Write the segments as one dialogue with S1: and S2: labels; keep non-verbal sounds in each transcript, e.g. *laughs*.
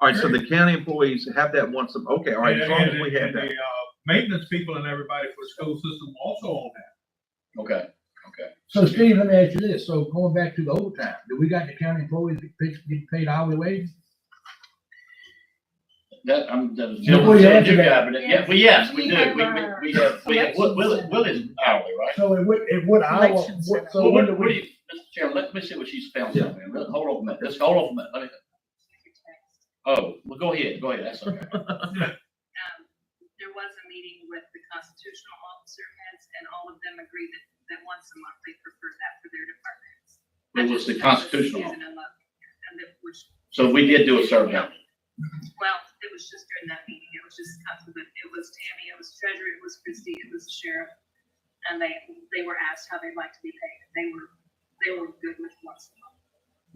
S1: All right, so the county employees have that once, a- okay, all right, as long as we have
S2: And- and- and
S1: that.
S2: the, uh, Maintenance people and everybody for the school system also on that.
S3: Okay, okay.
S4: So Steve, let me ask you this, so going back to the overtime, do we got the county employees that pay- get paid hourly wage?
S3: That, I'm, that is.
S4: Before you answer that.
S3: Yeah, but it- Yeah, well, yes, we
S5: We
S3: do.
S5: have
S3: We,
S5: our
S3: we, we have, we have, Will, Will,
S5: selection
S3: Will is hourly, right?
S4: So it would, it would hour,
S5: Election
S4: what- so
S3: Well,
S4: when do
S3: what, what do
S4: we,
S3: you, Mr. Chairman, let me see what she's found
S1: Yeah.
S3: something. Let- Hold on a minute. Let's hold on a minute. Let me, oh, well, go ahead, go ahead. That's okay.
S6: um, there was a meeting with the constitutional officer heads, and all of them agreed that, that once a month, they preferred that for their departments.
S3: It was the constitutional. officer.
S6: And that was.
S3: So we did do a survey.
S6: Well, it was just during that meeting, it was just, council, but it was Tammy, it was treasurer, it was Christie, it was the sheriff. And they, they were asked how they'd like to be paid, they were, they were good with once a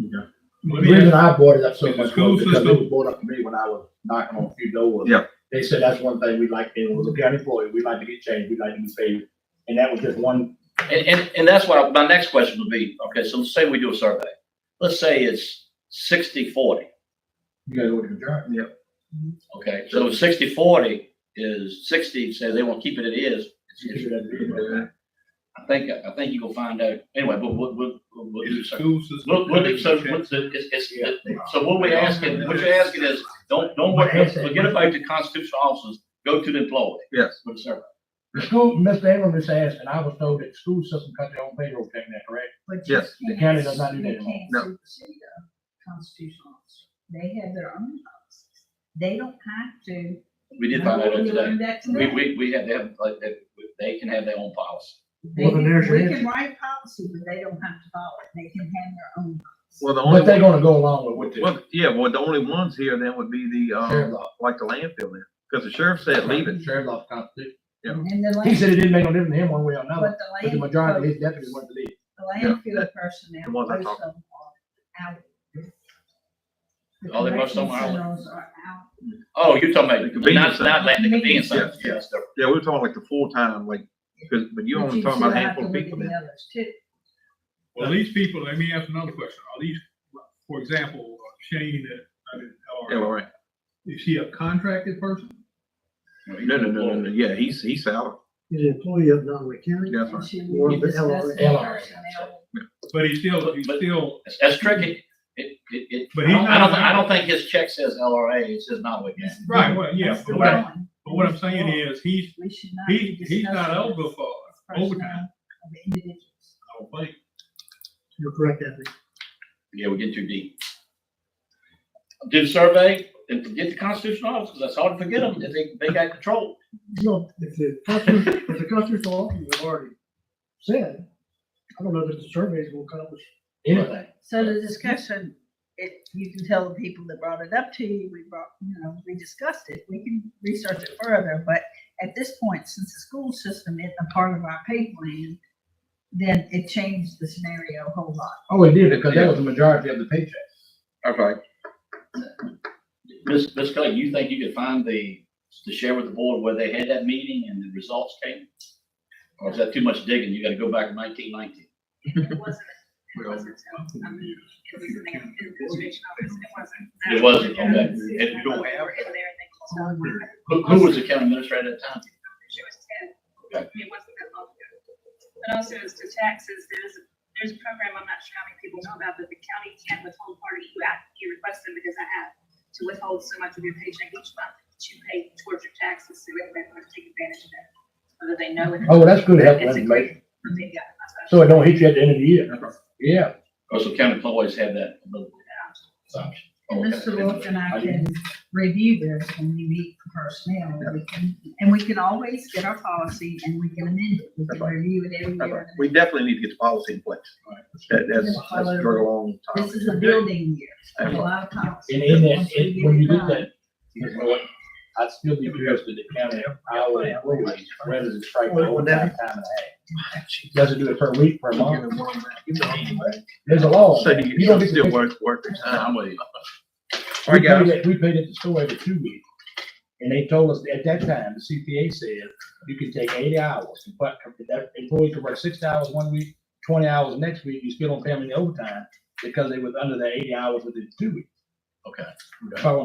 S6: month.
S4: the reason I brought it up so
S2: With the
S4: much
S2: school
S4: was because it
S2: system.
S4: was brought up to me when I was knocking on a few doors.
S1: Yeah.
S4: They said that's one thing we like, and was a county employee, we like to get changed, we like to be paid, and that was just one,
S3: And, and, and that's why my next question would be, okay, so let's say we do a survey. Let's say it's sixty forty,
S4: you guys would adjourn.
S3: okay? So sixty forty is sixty, says they want to keep it, it is. It's- it's- I think, I think you will find out, anyway, but we'll, we'll, we'll we'll do
S2: It's
S3: so.
S2: school system.
S3: Look, look, it's, so- what's the- it's, it's, it's- so what we asking, what you're asking is, don't, don't, worry, forget about the constitutional officers, go to the employee
S1: Yes,
S3: with a survey.
S4: The school, Mr. Ingram just asked, and I was told that the school system cut their own payroll, taking that, correct?
S1: yes,
S4: The county does not do that
S5: You
S4: anymore.
S5: can't
S1: No.
S5: sue the city though, constitutional officer. They have their own policies. They don't have to.
S3: We did find that out
S5: We
S3: today.
S5: learned that
S3: We,
S5: today.
S3: we, we have, they have, like, they- they can have their own policy.
S5: They
S4: Well, then
S5: can-
S4: there's your
S5: We
S4: answer.
S5: can write policy, but they don't have to follow it. They can have their own.
S1: well, the only,
S4: But they're
S1: one-
S4: gonna go along with what the
S1: well, yeah, well, the only ones here then would be the,
S4: sheriff's
S1: uh,
S4: office.
S1: like the landfill then, because the sheriff said leave it.
S4: Sheriff's office constitution.
S1: Yeah.
S5: And the
S4: He
S5: land,
S4: said it didn't make no difference to him one way or another, but
S5: but the
S4: the
S5: land.
S4: majority of his deputies wanted to leave.
S5: The
S1: Yeah. *laughs*
S5: landfill personnel.
S1: The ones I
S5: most
S1: talked
S5: of them are out. The
S3: Oh, they most of them are out.
S5: corrections centers are out.
S3: Oh, you're talking about,
S1: The convenience
S3: not, not like the
S5: center.
S3: convenience center.
S1: Yes.
S3: Yes.
S1: Yeah, we were talking like the full-time, like, because, but you
S5: But
S1: only talking about a
S5: still have
S1: handful
S5: to
S1: of
S5: look
S1: people
S5: at the
S1: then.
S5: others too.
S2: Well, these people, let me ask another question. Are these, for example, Shane, uh, I mean,
S1: Yeah,
S2: or
S1: all right.
S2: is he a contracted person?
S1: No, no, no, no, no, yeah, he's, he's salary,
S7: He's an employee of Nottaway County.
S1: that's
S5: And
S1: right.
S5: she
S7: Or
S5: will
S7: the
S5: discuss
S7: LRA.
S5: the
S4: LRA.
S5: personnel.
S2: But he's still, he's
S3: But-
S2: still,
S3: That's, that's tricky. It, it, it,
S2: But
S3: I don't,
S2: he's
S3: I don't,
S2: not-
S3: I don't think his check says LRA, it says Nottaway County.
S2: right, well, yeah,
S5: That's the
S2: but what I'm-
S5: one.
S2: but what I'm saying is, he's,
S5: We should not.
S2: he,
S5: be
S2: he's not
S5: discussing
S2: eligible for
S5: personnel
S2: overtime.
S5: Of the individuals.
S2: I don't think.
S7: You're correct, Anthony.
S3: Yeah, we get too deep. Do the survey and forget the constitutional officers. That's hard to forget them. They, think they got control.
S7: No, if the constitution, if the constitutional officers have already said, I don't know that the surveys will accomplish.
S4: Anything.
S5: So the discussion, it, you can tell the people that brought it up to you, we brought, you know, we discussed it, we can research it further, but at this point, since the school system isn't a part of our pay plan, then it changed the scenario a whole lot.
S4: Oh, it did, because that was the majority of the paycheck.
S1: Okay,
S3: Ms. Ms. Kelly, you think you could find the, to share with the board where they had that meeting and the results came? Or is that too much digging? You gotta go back to nineteen nineteen.
S6: It wasn't, it
S1: Well,
S6: wasn't, I mean, it was in the administration office, it wasn't.
S3: It wasn't, okay.
S6: It was
S3: If you don't have-
S6: In there, and they closed out.
S3: Who, who was the county administrator at the time?
S6: She was ten. It wasn't that long ago. But also as to taxes, there's, there's a program, I'm not sure how many people know about, but the county can't withhold part of you at, you request them because I have to withhold so much of your paycheck each month that you pay towards your taxes, so everybody wants to take advantage of that, whether they know it. or
S4: Oh, that's good help
S6: It's a
S4: information,
S6: great- they got it. That's
S4: so
S6: what I-
S4: it don't hit you at the end of the year. Yeah,
S3: Or so county employees have that ability? Assumption.
S5: Mr. Wolf and I
S3: Okay.
S5: can review this when we meet for personnel, we can- and we can always get our policy and we can amend it, we can review it every
S1: that's right.
S5: year.
S1: We definitely need to get the policy in place. That, that's, that's a very long time.
S5: This is a building year, a lot of policy.
S4: and in that,
S5: Once we
S4: it-
S5: get
S4: when
S5: it
S4: you do
S5: done,
S4: that, you know what, I'd still be interested to county hourly employees rather than strike the whole time and a half. Doesn't do it per week, per month. There's a law.
S1: So you,
S4: Oh, You don't
S1: you
S4: get
S1: still
S4: to.
S1: worth, worth the time.
S3: Uh, I'm with you.
S1: All
S4: We
S1: right,
S4: paid
S1: guys,
S4: it, we paid it to store every two weeks. And they told us at that time, the CPA said, you can take eighty hours, but if that employee could work six hours one week, twenty hours next week, you still don't pay them any overtime because they was under the eighty hours within two weeks.
S3: Okay.
S4: That's all I'm